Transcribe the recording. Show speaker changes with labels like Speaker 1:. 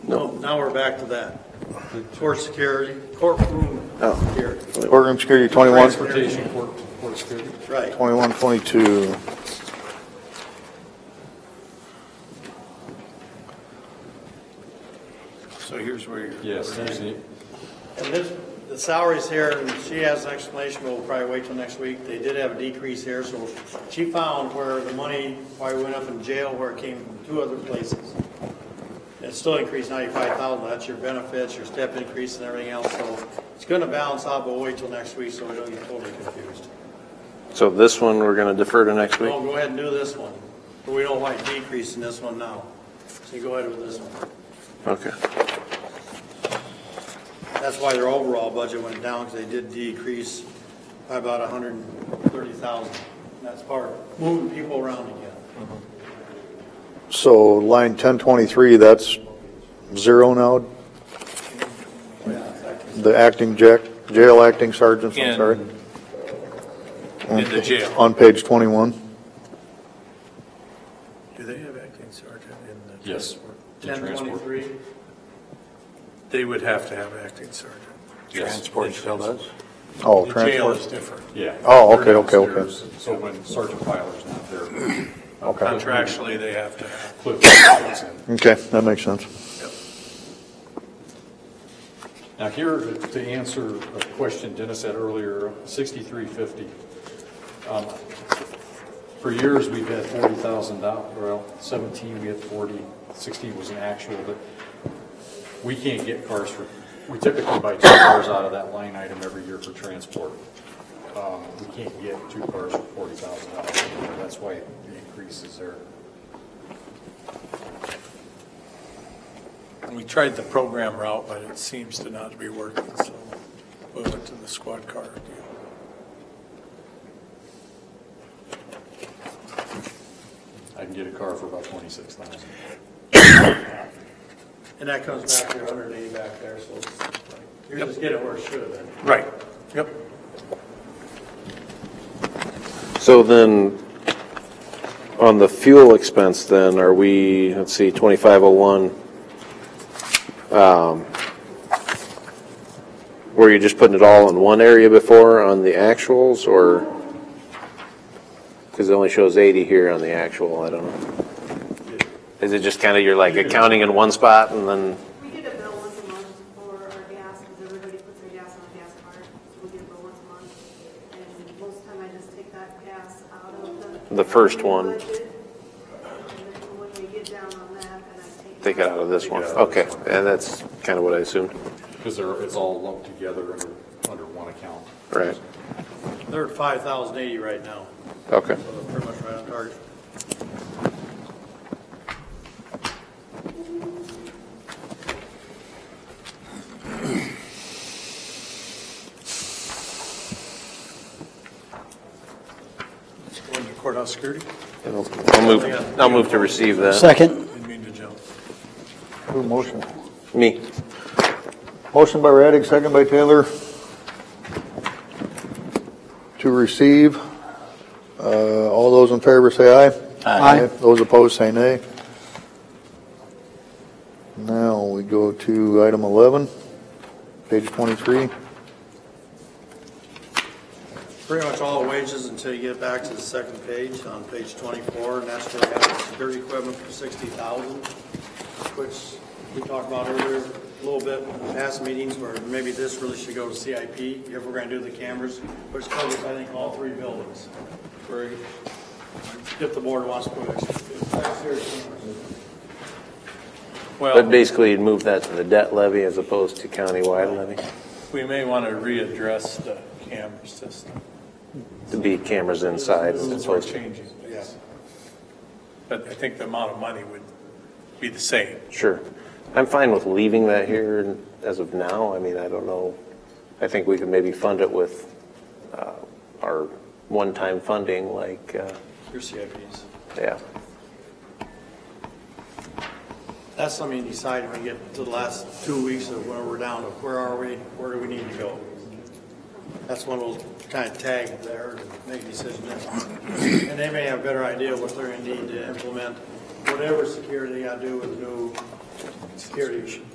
Speaker 1: Now we're back to that. Court security, courtroom
Speaker 2: Oh.
Speaker 1: security.
Speaker 2: Courtroom security, 21,
Speaker 1: Transportation.
Speaker 3: court, court security.
Speaker 1: Right.
Speaker 2: 21, 22.
Speaker 1: So here's where you're.
Speaker 3: Yes, there's the,
Speaker 1: And this, the salaries here, and she has an explanation, but we'll probably wait till next week. They did have a decrease here, so she found where the money, why we went up in jail, where it came from two other places. It still increased ninety-five thousand, that's your benefits, your step increase and everything else, so it's gonna balance out, but we'll wait till next week, so we don't get totally confused.
Speaker 4: So this one, we're going to defer to next week?
Speaker 1: Well, go ahead and do this one, but we don't like decreasing this one now, so you go ahead with this one.
Speaker 4: Okay.
Speaker 1: That's why their overall budget went down, because they did decrease by about a hundred and thirty thousand. That's part of moving people around again.
Speaker 2: So line 1023, that's zero now? The acting jack, jail acting sergeants, I'm
Speaker 5: In-
Speaker 2: sorry?
Speaker 5: in the jail.
Speaker 2: On page 21.
Speaker 6: Do they have acting sergeant in the?
Speaker 3: yes. the
Speaker 1: Ten
Speaker 3: transport.
Speaker 1: twenty-three,
Speaker 6: They would have to have acting sergeant.
Speaker 3: Yes.
Speaker 5: Transport still does?
Speaker 2: Oh,
Speaker 6: The jail
Speaker 2: transport.
Speaker 6: is different.
Speaker 3: Yeah.
Speaker 2: Oh, okay, okay, okay.
Speaker 3: There's- So when Sergeant Filer's not there,
Speaker 2: Okay,
Speaker 6: Contractually, they have to have.
Speaker 3: Cliff comes in.
Speaker 2: okay, that makes sense.
Speaker 3: Now here, to answer a question Dennis had earlier, 6350. Um, For years, we've had $40,000, well, 17, we had 40, 16 was an actual, but we can't get cars for, we typically buy two cars out of that line item every year for transport. Um, We can't get two cars for $40,000, that's why the increase is there.
Speaker 6: We tried the program route, but it seems to not be working, so we went to the squad car deal.
Speaker 3: I can get a car for about 26,000.
Speaker 1: and that comes back to your hundred and eighty back there, so it's like, you're just getting where it should have been.
Speaker 6: Right, yep.
Speaker 4: So then, on the fuel expense then, are we, let's see, 2501, um, were you just putting it all in one area before on the actuals, or? Because it only shows 80 here on the actual, I don't know. Is it just kind of you're like accounting in one spot and then,
Speaker 7: We get a bill once a month for our gas, because everybody puts their gas on a gas card, so we get a bill once a month. And most of the time I just take that gas out of the.
Speaker 4: The first one.
Speaker 7: budget. And then when we get down on that, and I take.
Speaker 4: take it out of this one? Okay, and that's kind of what I assumed,
Speaker 3: Because they're- it's all lumped together under, under one account.
Speaker 4: right?
Speaker 1: They're at five thousand eighty right now, so they're
Speaker 4: Okay.
Speaker 1: pretty much right on target.
Speaker 6: Going to courthouse security,
Speaker 4: I'll I'll move, I'll move to receive that.
Speaker 8: Second,
Speaker 6: didn't mean to jump.
Speaker 2: Who motion?
Speaker 4: Me.
Speaker 2: Motion by Raddick, second by Taylor. To receive. Uh, All those in favor say aye.
Speaker 8: Aye.
Speaker 2: Those opposed say nay. Now we go to item 11, page 23.
Speaker 1: Pretty much all wages until you get back to the second page, on page twenty-four, and that's where we have the security equipment for sixty thousand, which we talked about earlier, a little bit in past meetings, where maybe this really should go to CIP, if we're gonna do the cameras, which covers, I think, all three buildings. Where, if the board wants to put extra.
Speaker 4: But
Speaker 6: Well,
Speaker 4: basically, you'd move that to the debt levy as opposed to countywide levy,
Speaker 6: we may want to readdress the camera system.
Speaker 4: to be cameras inside as
Speaker 6: Since we're
Speaker 4: opposed to,
Speaker 6: changing, yes. But I think the amount of money would be the same.
Speaker 4: sure. I'm fine with leaving that here as of now, I mean, I don't know, I think we could maybe fund it with uh, our one-time funding, like, uh,
Speaker 1: Your CIPs.
Speaker 4: yeah.
Speaker 1: That's something you decide when we get to the last two weeks of where we're down, to where are we, where do we need to go? That's one we'll kind of tag there and make a decision. then. And they may have a better idea what they're gonna need to implement, whatever security they gotta do with new security